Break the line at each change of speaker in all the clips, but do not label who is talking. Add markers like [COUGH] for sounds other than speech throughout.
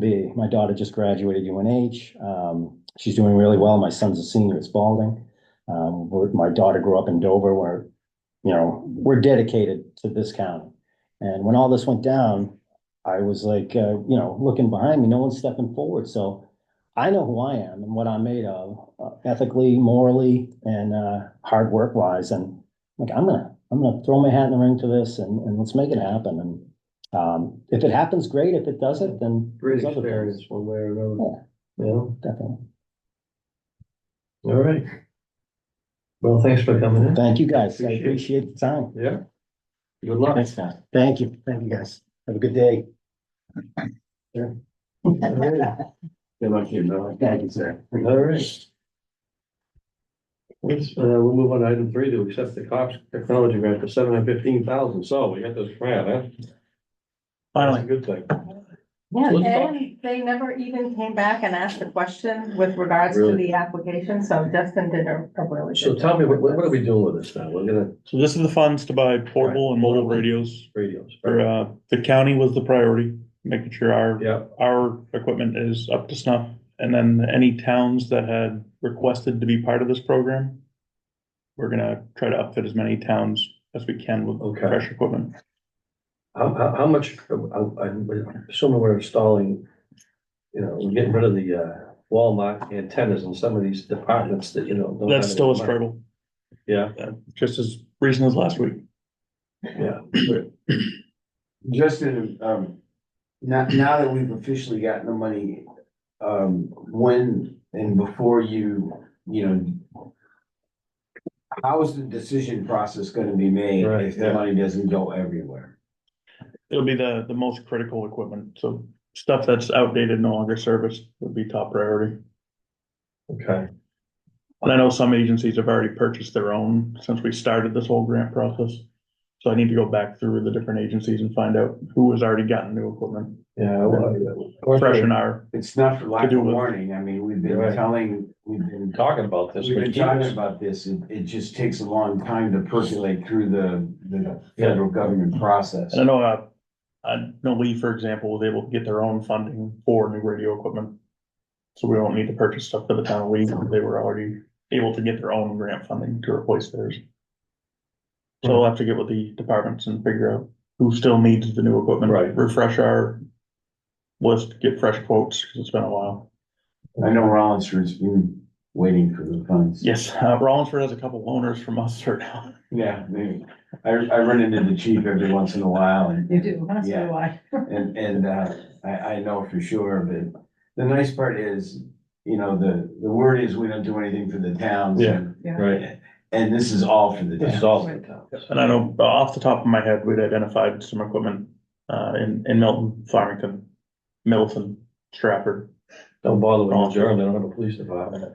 The, my daughter just graduated UNH. Um, she's doing really well. My son's a senior at Spalding. Um, we're- my daughter grew up in Dover where, you know, we're dedicated to this county. And when all this went down, I was like, uh, you know, looking behind me, no one's stepping forward. So I know who I am and what I'm made of uh, ethically, morally, and, uh, hard work wise. And like, I'm gonna, I'm gonna throw my hat in the ring to this and, and let's make it happen. And, um, if it happens, great. If it doesn't, then.
Great
there's other things.
experience one way or another. Yeah,
Definitely.
all right. Well, thanks for coming in.
Thank you, guys. I
Appreciate it.
appreciate the time.
Yeah. Good
[LAUGHS]
luck.
man. Thank you. Thank you, guys. Have a good day.
All right.
Good luck, you know.
Thank you, sir.
All right. Let's, uh, we'll move on to item three to accept the Cox Technology Grant for seven hundred fifteen thousand. So we got this grant, huh? That's a Good thing.
Yeah,
Let's go.
and they never even came back and asked a question with regards to
Really?
the application, so Justin did a a really good.
So tell me,
job
what,
with
what are
this.
we doing with this now? We're gonna
So this is the funds to buy portable and mobile
Right.
radios
radios.
for, uh, the county was the priority, making sure our,
Yeah,
our equipment is up to snuff. And then any towns that had requested to be part of this program, we're gonna try to outfit as many towns as we can with
Okay.
fresh equipment.
how, how, how much, I'm, I'm assuming we're installing, you know, we're getting rid of the, uh, Walmart antennas in some of these departments that, you know. don't
That's
have
still a
any money.
struggle,
Yeah.
uh, just as recent as last week.
Yeah,
Justin, um, now, now that we've officially gotten the money, um, when and before you, you know, how is the decision process gonna be made
Right,
if the
yeah.
money doesn't go everywhere?
It'll be the, the most critical equipment, so stuff that's outdated, no longer serviced would be top priority.
okay,
And I know some agencies have already purchased their own since we started this whole grant process. So I need to go back through the different agencies and find out who has already gotten new equipment,
yeah. well, we're
fresh in our,
It's not for lack
To do
of
with-
warning, I mean, we've
You're
been
right.
telling, we've been,
Talking about this.
we've
for
been
years.
talking about this, it, it just takes a long time to percolate through the, the federal government process.
and I know, uh, I know Lee, for example, was able to get their own funding for new radio equipment. So we don't need to purchase stuff for the town of Lee, they were already able to get their own grant funding to replace theirs. So I'll have to get with the departments and figure out who still needs the new equipment.
Right.
Refresh our list, get fresh quotes, because it's been a while.
I know Rollinsford's been waiting for the funds.
Yes, uh, Rollinsford has a couple loaners from us right now.
Yeah, maybe. I, I run into the chief every once in a while and,
You do, huh? so
Yeah.
do I.
and, and, uh, I, I know for sure, but the nice part is, you know, the, the word is we don't do anything for the towns.
Yeah.
Yeah.
Right,
And this is all for the
this is
towns.
all for the town.
And I know uh, off the top of my head, we'd identified some equipment uh, in, in Milton, Farmington, Middleton, Stratford.
Don't bother with New Jersey, they don't have a police department.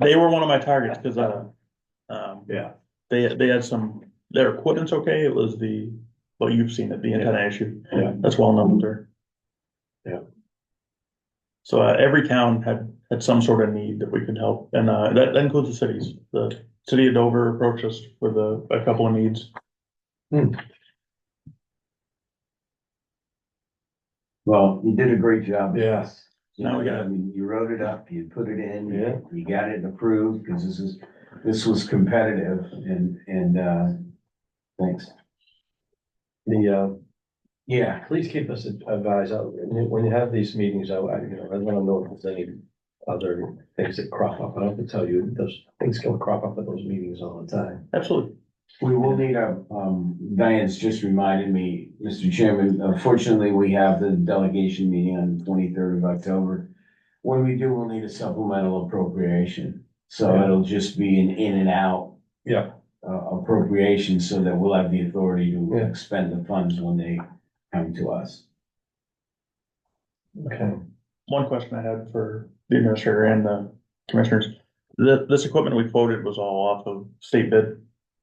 They were one of my targets because, uh, um,
Yeah.
they, they had some, their equipment's okay. It was the, well, you've seen it, the antenna issue.
Yeah.
That's well known there.
Yeah.
So uh, every town had, had some sort of need that we could help, and uh, that that includes the cities. The city of Dover approached us with a, a couple of needs.
Well, you did a great job.
Yes.
You
Now we
know,
got it.
I mean, you wrote it up, you put it in,
Yeah.
you got it approved, because this is, this was competitive and, and, uh, thanks.
The,
Yeah,
uh, please keep us advised, uh, when you- when you have these meetings, I, I, you know, I wanna know if there's any other things that crop up. I have to tell you, those things can crop up at those meetings all the time.
Absolutely.
We will need a, um, Diane's just reminded me, Mr. Chairman, unfortunately, we have the delegation meeting on the twenty-third of October. When we do, we'll need a supplemental appropriation, so
Yeah.
it'll just be an in and out.
Yeah.
Uh, appropriation so that we'll have the authority to
Yeah.
expend the funds when they come to us.
Okay.
One question I had for the administrator and the commissioners, the, this equipment we quoted was all off of state bid.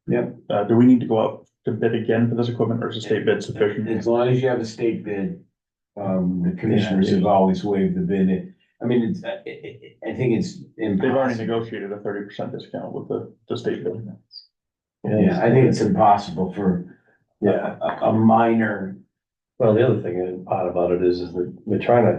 Yep.
Uh, do we need to go out to bid again for this equipment or is the state bid sufficient?
As long as you have a state bid, um, the commissioners
Yeah.
have always waived the bid. I mean, it's, I, I, I think it's
They've already
impossible.
negotiated a thirty percent discount with the, the state bid.
Yeah, I think it's impossible for
Yeah,
a, a minor
Well, the other thing, and part about it is, is that we're trying to